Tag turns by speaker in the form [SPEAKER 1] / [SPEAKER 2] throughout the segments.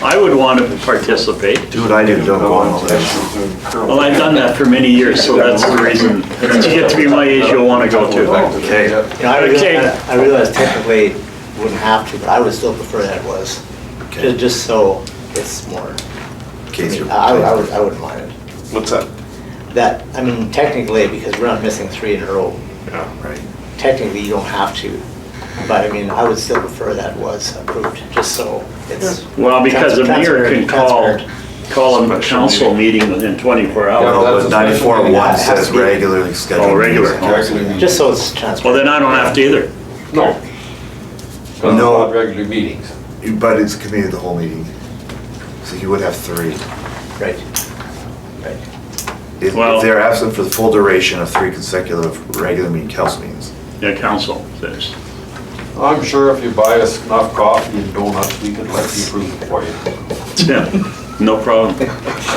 [SPEAKER 1] I would want to participate.
[SPEAKER 2] Do what I do, don't go on all that.
[SPEAKER 1] Well, I've done that for many years, so that's the reason. If you get to be my age, you'll want to go too.
[SPEAKER 2] Okay,
[SPEAKER 3] You know, I
[SPEAKER 1] Okay.
[SPEAKER 3] realize, I realize technically wouldn't have to, but I would still prefer that it was, Ju- just so it's more, I
[SPEAKER 2] case
[SPEAKER 3] mean,
[SPEAKER 2] you're.
[SPEAKER 3] I would- I would, I wouldn't mind it.
[SPEAKER 4] What's that?
[SPEAKER 3] That, I mean, technically, because we're not missing three in a row,
[SPEAKER 4] Yeah.
[SPEAKER 2] Right.
[SPEAKER 3] technically you don't have to, but I mean, I would still prefer that was approved, just so it's.
[SPEAKER 1] Well, because the mayor can
[SPEAKER 3] transparent-
[SPEAKER 1] call,
[SPEAKER 3] transparent.
[SPEAKER 1] call a council meeting within 24 hours.
[SPEAKER 2] No, but ninety-four one says regularly scheduled.
[SPEAKER 1] Oh, regular.
[SPEAKER 2] meetings.
[SPEAKER 3] Just so it's transparent.
[SPEAKER 1] Well, then I don't have to either.
[SPEAKER 5] No.
[SPEAKER 2] No.
[SPEAKER 5] Not regular meetings.
[SPEAKER 2] But it's committee of the whole meeting. So you would have three.
[SPEAKER 3] Right, right.
[SPEAKER 2] If
[SPEAKER 1] Well-
[SPEAKER 2] if they're absent for the full duration of three consecutive regular meeting council meetings.
[SPEAKER 1] Yeah, council says.
[SPEAKER 5] I'm sure if you buy us enough coffee and donuts, we could let you prove it for you.
[SPEAKER 1] Yeah, no problem.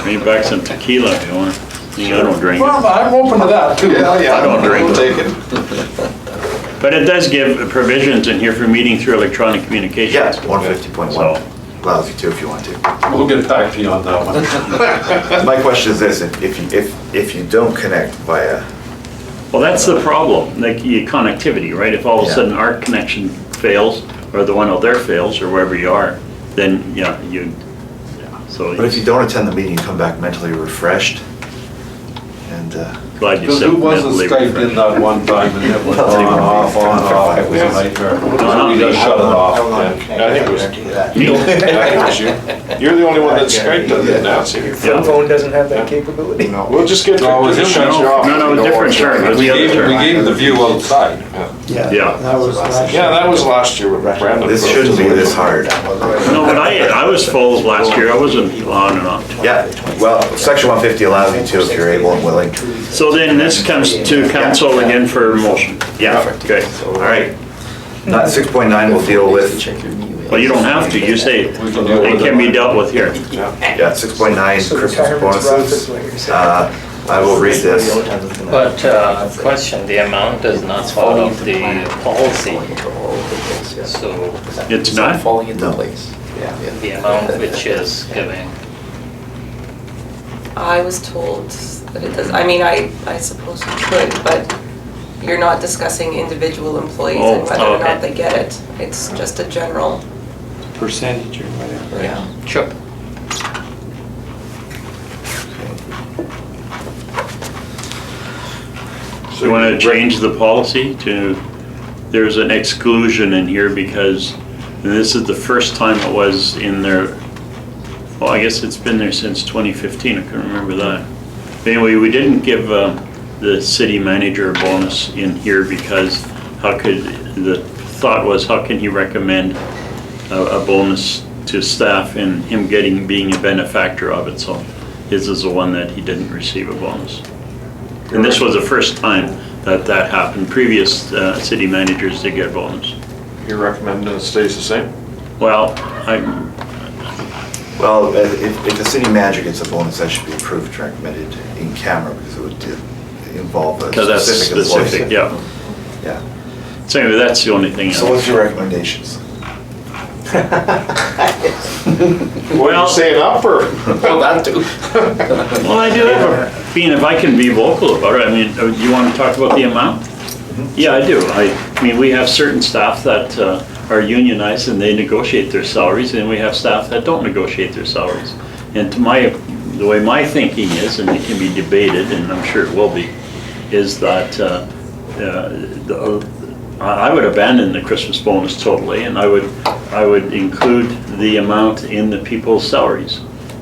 [SPEAKER 1] Bring back some tequila if you want. I don't drink it.
[SPEAKER 5] Well, I'm open to that too.
[SPEAKER 4] Yeah, yeah.
[SPEAKER 1] I don't drink.
[SPEAKER 4] We'll take it.
[SPEAKER 1] But it does give provisions in here for meeting through electronic communications.
[SPEAKER 2] Yes, one fifty point one. Allows you to if you want to.
[SPEAKER 5] We'll get back to you on that one.
[SPEAKER 2] My question is this, if if you, if, if you don't connect via,
[SPEAKER 1] Well, that's the problem, like your connectivity, right? If all of a
[SPEAKER 2] Yeah.
[SPEAKER 1] sudden our connection fails, or the one out there fails, or wherever you are, then, yeah, you, yeah, so
[SPEAKER 2] but if you don't attend the meeting, you come back mentally refreshed. And, uh,
[SPEAKER 1] glad you
[SPEAKER 5] Because
[SPEAKER 1] said
[SPEAKER 5] who wasn't
[SPEAKER 1] mentally
[SPEAKER 5] Skyped in
[SPEAKER 1] refreshed.
[SPEAKER 5] that one time and it was on, off, on, off, it was a nightmare. So We just shut it
[SPEAKER 3] I don't know how to
[SPEAKER 5] off.
[SPEAKER 3] connect,
[SPEAKER 4] I
[SPEAKER 3] I
[SPEAKER 4] think it
[SPEAKER 3] don't
[SPEAKER 4] was-
[SPEAKER 3] do that.
[SPEAKER 1] Me?
[SPEAKER 4] You're the only one that's Skyped on it now, see?
[SPEAKER 1] Yeah.
[SPEAKER 6] phone doesn't have that capability.
[SPEAKER 4] We'll just get.
[SPEAKER 5] No, it was
[SPEAKER 4] Victor to shut
[SPEAKER 5] him.
[SPEAKER 4] you off
[SPEAKER 1] No, no,
[SPEAKER 4] if you
[SPEAKER 1] it was
[SPEAKER 4] don't want
[SPEAKER 1] different
[SPEAKER 4] to.
[SPEAKER 1] term.
[SPEAKER 5] We gave, we gave the view outside.
[SPEAKER 1] Yeah.
[SPEAKER 6] That was last
[SPEAKER 4] Yeah,
[SPEAKER 6] year.
[SPEAKER 4] that was last year with Brandon.
[SPEAKER 2] this shouldn't be this hard.
[SPEAKER 1] No, but I, I was full last year, I wasn't on and off.
[SPEAKER 2] Yeah, well, section one fifty allows you to if you're able and willing.
[SPEAKER 1] So then this comes to council again for a motion. Yeah, okay.
[SPEAKER 2] All right. Not, six point nine will deal with,
[SPEAKER 1] Well, you don't have to, you say
[SPEAKER 5] We can deal
[SPEAKER 1] it
[SPEAKER 5] with
[SPEAKER 1] can be
[SPEAKER 5] it.
[SPEAKER 1] dealt with here.
[SPEAKER 2] yeah, six point nine,
[SPEAKER 6] So
[SPEAKER 2] Christmas
[SPEAKER 6] retirement's rough is
[SPEAKER 2] bonuses.
[SPEAKER 6] what you're saying.
[SPEAKER 2] Uh, I will read this.
[SPEAKER 7] But uh, question, the amount is not part of the policy, so
[SPEAKER 1] It's not?
[SPEAKER 8] Falling into
[SPEAKER 2] No.
[SPEAKER 8] place. Yeah.
[SPEAKER 7] the amount which is given.
[SPEAKER 9] I was told that it does, I mean, I, I suppose you could, but you're not discussing individual employees
[SPEAKER 1] Oh,
[SPEAKER 9] and whether or
[SPEAKER 1] okay.
[SPEAKER 9] not they get it. It's just a general,
[SPEAKER 6] Percentage or whatever.
[SPEAKER 9] yeah.
[SPEAKER 7] Sure.
[SPEAKER 1] So you want to change the policy to, there's an exclusion in here because this is the first time it was in there, well, I guess it's been there since 2015, I can not remember that. Anyway, we didn't give uh, the city manager a bonus in here because how could, the thought was, how can he recommend a a bonus to staff and him getting, being a benefactor of it? So his is the one that he didn't receive a bonus. And this was the first time that that happened. Previous uh, city managers did get bonus.
[SPEAKER 4] You're recommending it stays the same?
[SPEAKER 1] Well, I,
[SPEAKER 2] Well, uh, if, if the city manager gets a bonus, that should be approved and recommended in camera because it would uh, involve a
[SPEAKER 1] because that's
[SPEAKER 2] specific employee.
[SPEAKER 1] specific, yeah.
[SPEAKER 2] Yeah.
[SPEAKER 1] So anyway, that's the only thing.
[SPEAKER 2] So what's your recommendations?
[SPEAKER 4] What, are
[SPEAKER 1] Well-
[SPEAKER 4] you saying up or?
[SPEAKER 8] Well, that too.
[SPEAKER 1] Well, I do have a, being if I can be vocal about it, I mean, uh, you want to talk about the amount? Yeah, I do. I, I mean, we have certain staff that uh, are unionized and they negotiate their salaries, and we have staff that don't negotiate their salaries. And to my, the way my thinking is, and it can be debated, and I'm sure it will be, is that uh, uh, the- uh, I I would abandon the Christmas bonus totally, and I would, I would include the amount in the people's salaries,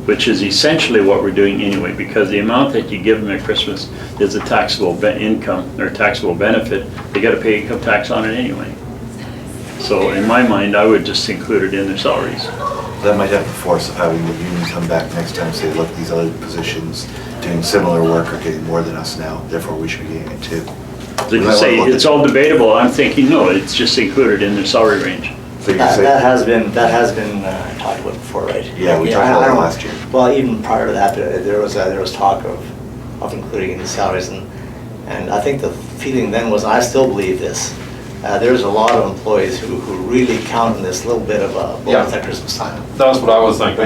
[SPEAKER 1] which is essentially what we're doing anyway, because the amount that you give them at Christmas is a taxable be- income, or taxable benefit, they gotta pay income tax on it anyway. So in my mind, I would just include it in their salaries.
[SPEAKER 2] That might have the force of having the union come back next time and say, look, these other positions doing similar work are getting more than us now, therefore we should be getting it too.
[SPEAKER 1] They can say, it's all debatable, I'm thinking, no, it's just included in their salary range.
[SPEAKER 2] So you
[SPEAKER 3] That, that
[SPEAKER 2] say,
[SPEAKER 3] has been, that has been uh, talked about before, right?
[SPEAKER 2] Yeah, we talked
[SPEAKER 3] I- I
[SPEAKER 2] about that
[SPEAKER 3] don't-
[SPEAKER 2] last year.
[SPEAKER 3] Well, even prior to that, there there was, uh, there was talk of, of including in the salaries and, and I think the feeling then was, I still believe this, uh, there's a lot of employees who, who really count on this little bit of a bonus
[SPEAKER 5] Yeah.
[SPEAKER 3] at Christmas time.
[SPEAKER 5] That's what I was thinking.